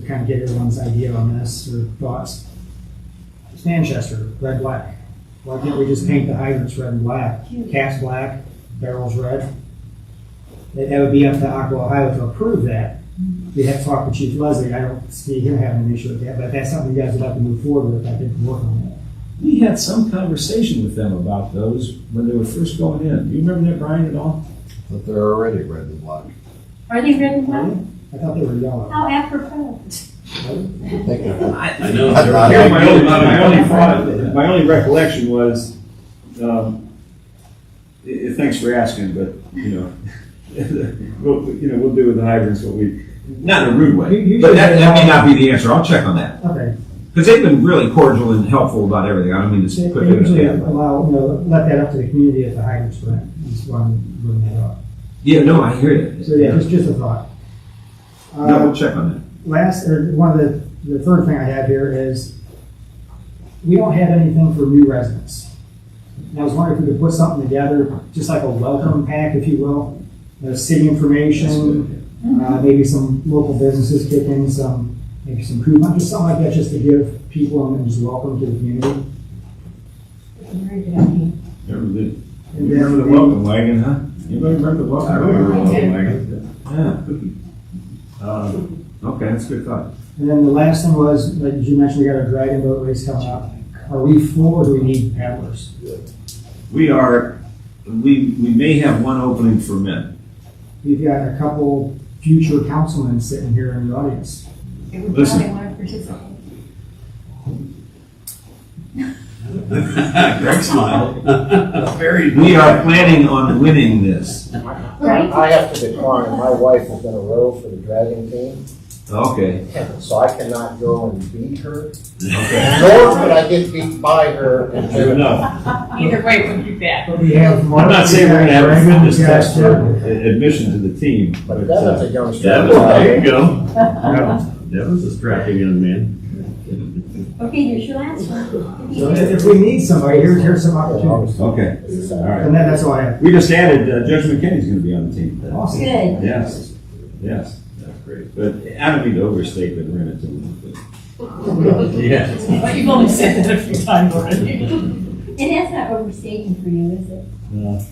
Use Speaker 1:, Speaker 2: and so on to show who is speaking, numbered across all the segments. Speaker 1: to kind of get everyone's idea on this or thoughts. It's Manchester, red, black. Why can't we just paint the hydrants red and black? Caps black, barrels red. That that would be up to Aqua Ohio to approve that. We'd have to talk with Chief Leslie. I don't see him having an issue with that, but if that's something you guys would have to move forward with. I think we can work on that.
Speaker 2: We had some conversation with them about those when they were first going in. Do you remember that, Brian, at all?
Speaker 3: But they're already red and black.
Speaker 4: Are they red and black?
Speaker 1: I thought they were yellow.
Speaker 4: How apropos.
Speaker 3: I think they're-
Speaker 5: I know.
Speaker 3: I- I-
Speaker 5: they're-
Speaker 2: My only, my only thought, my only recollection was, um, i- i- thanks for asking, but, you know, we'll, you know, we'll do with the hydrants what we, not in a rude
Speaker 1: You- you
Speaker 2: way, but that,
Speaker 1: should-
Speaker 2: that may not be the answer. I'll check on that.
Speaker 1: Okay.
Speaker 2: Because they've been really cordial and helpful about everything. I don't mean
Speaker 1: They
Speaker 2: to put
Speaker 1: they
Speaker 2: it
Speaker 1: usually
Speaker 2: in a bad way.
Speaker 1: allow, you know, let that up to the community if the hydrants were, in. just wanted to bring that up.
Speaker 2: Yeah, no, I hear you.
Speaker 1: So yeah, just, just a thought.
Speaker 2: No,
Speaker 1: Uh,
Speaker 2: we'll check on that.
Speaker 1: last, or one of the, the third thing I have here is, we don't have anything for new residents. And I was wondering if we could put something together, just like a welcome pack, if you will, you know, city information, uh, maybe some local businesses kick in some, maybe some coupons, just something like that, just to give people and just welcome to the community.
Speaker 4: Very good idea.
Speaker 2: Remember the,
Speaker 1: And
Speaker 2: you remember the
Speaker 1: then-
Speaker 2: welcome wagon, huh? Anybody remember the welcome?
Speaker 5: I remember
Speaker 2: wagon?
Speaker 5: one of them,
Speaker 2: Yeah. Um, Okay, that's a good thought.
Speaker 1: And then the last thing was, like you mentioned, we got a dragon boat race coming up. Are we full or do we need paddlers?
Speaker 2: We are, we, we may have one opening for men.
Speaker 1: We've got a couple future councilmen sitting here in the audience.
Speaker 4: They would
Speaker 2: Listen.
Speaker 4: probably want to participate.
Speaker 5: I think. Greg smiled. Very.
Speaker 2: We are planning on winning this.
Speaker 4: Right?
Speaker 6: I have to decline, my wife is in a row for the Dragon team,
Speaker 2: Okay,
Speaker 6: so I cannot go and beat her.
Speaker 2: okay.
Speaker 6: Nor could I get beat by her. and
Speaker 2: Fair enough.
Speaker 4: Either way, it would be bad.
Speaker 1: But we have Mark.
Speaker 2: I'm not saying we're gonna have a
Speaker 1: Dragon,
Speaker 2: fitness
Speaker 1: we got
Speaker 2: test
Speaker 1: Jeff.
Speaker 2: for a- admission to the team, but,
Speaker 6: But Devin's a
Speaker 2: uh,
Speaker 6: young
Speaker 5: Devin,
Speaker 6: star.
Speaker 5: there you go. Devin's a strapping young man.
Speaker 4: Okay, here's your last one.
Speaker 1: So if if we need somebody, here's, here's some opportunities.
Speaker 2: okay, all right.
Speaker 1: And that, that's all I have.
Speaker 2: We just added, uh, Judge McKinney's gonna be on the team.
Speaker 1: Awesome.
Speaker 4: Good.
Speaker 2: Yes, yes, that's great. But I don't mean to overstate, but we're in it too.
Speaker 5: Yeah.
Speaker 7: But you've only said that a few times already.
Speaker 4: And that's not overstating for you, is it?
Speaker 2: No.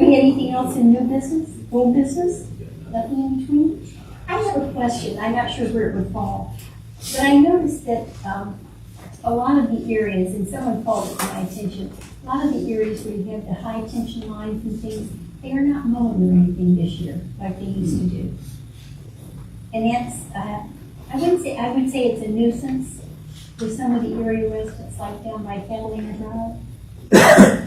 Speaker 4: Do we have anything else in new business, old business? Nothing in between? I have a question. I'm not sure where it would fall. But I noticed that, um, a lot of the areas, and someone called it to my attention, a lot of the areas where you have the high tension lines and things, they are not mowed or anything this year like they used to do. And that's, uh, I wouldn't say, I would say it's a nuisance for some of the area residents like down by Catalina Drive.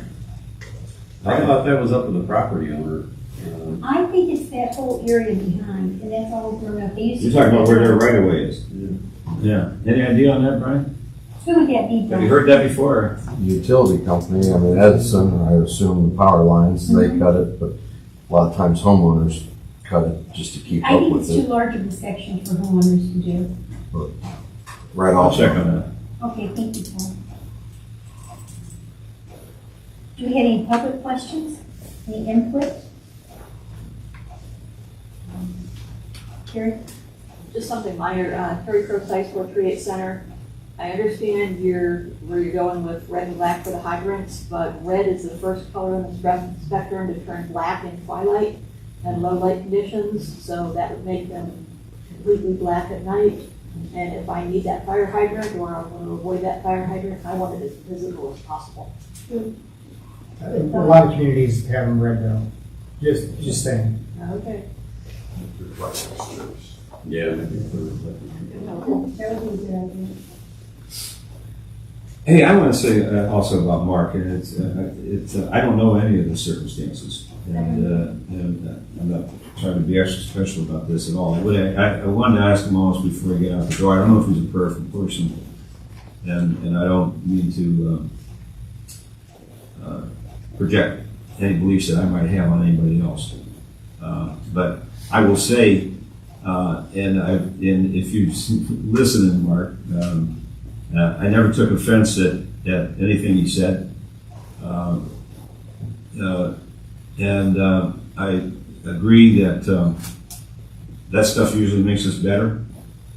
Speaker 5: I thought that was up to the property owner. Um,
Speaker 4: I think it's that whole area behind, and that's all grown up. They used to.
Speaker 2: You're talking about where their right of way is.
Speaker 5: Yeah.
Speaker 2: Yeah. Any idea on that, Brian?
Speaker 4: Who would that be
Speaker 2: Have you
Speaker 4: from?
Speaker 2: heard that before?
Speaker 3: Utility company, I mean Edison, I assume the power lines, they
Speaker 6: Mm-hmm.
Speaker 3: cut it, but a lot of times homeowners cut it just to keep
Speaker 4: I
Speaker 3: up
Speaker 4: think
Speaker 3: with
Speaker 4: it's too
Speaker 3: it.
Speaker 4: large of a section for homeowners to do.
Speaker 3: Right
Speaker 2: I'll
Speaker 3: off.
Speaker 2: check on that.
Speaker 4: Okay, thank you, Paul. Do we have any public questions? Any input? Carrie?
Speaker 8: Just something minor, uh, Terry Crowe Sites four three eight center. I understand you're, where you're going with red and black for the hydrants, but red is the first color in the spec- spectrum to turn black in twilight and low light conditions, so that would make them completely black at night. And if I need that fire hydrant or I want to avoid that fire hydrant, I want it as visible as possible.
Speaker 1: I think A lot of communities have them red now. Just, just saying.
Speaker 8: Okay.
Speaker 5: Yeah.
Speaker 4: That would be a good idea.
Speaker 2: Hey, I want to say uh, also about Mark, and it's, uh, it's, uh, I don't know any of the circumstances, and, uh, and uh, I'm not trying to be extra special about this at all. What I, I- I wanted to ask him almost before I get out the door, I don't know if he's a prayerful person, and, and I don't mean to, um, uh, project any beliefs that I might have on anybody else. Uh, but I will say, uh, and I, and if you listen, Mark, um, uh, I never took offense at, at anything he said. Um, uh, and uh, I agree that um, that stuff usually makes us better.